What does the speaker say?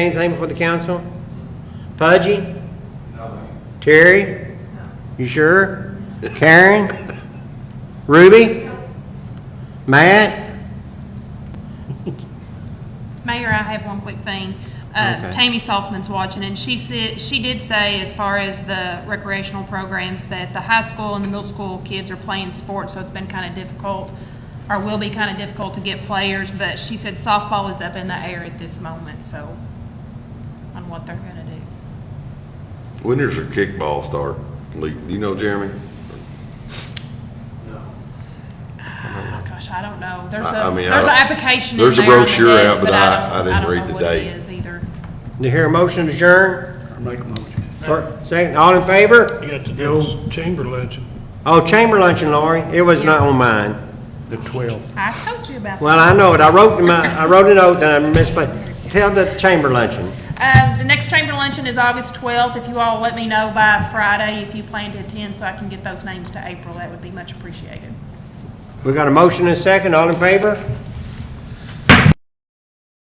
Anything for the council? Pudgy? No. Terry? You sure? Karen? Ruby? Matt? Mayor, I have one quick thing. Uh, Okay. Tammy Saltzman's watching, and she said, she did say, as far as the recreational programs, that the high school and the middle school kids are playing sports, so it's been kind of difficult, or will be kind of difficult to get players, but she said softball is up in the air at this moment, so, on what they're gonna do. When does your kickball start? Lee, do you know, Jeremy? Oh, gosh, I don't know. There's I- I a, mean, I there's an don't- application in there's a there on the brochure out, desk, but but I- I I don't, didn't I don't read the know what it date. is either. Do you hear a motion to adjourn? Make a motion. Fir- Second, all in favor? You got to do this chamber legend. Oh, chamber luncheon, Lori. It was not on mine. The 12th. I told you about that. Well, I know it. I wrote in my, I wrote a note that I misplaced. Tell the chamber luncheon. Um, the next chamber luncheon is August twelfth. If you all let me know by Friday if you plan to attend, so I can get those names to April, that would be much appreciated. We got a motion and a second. All in favor?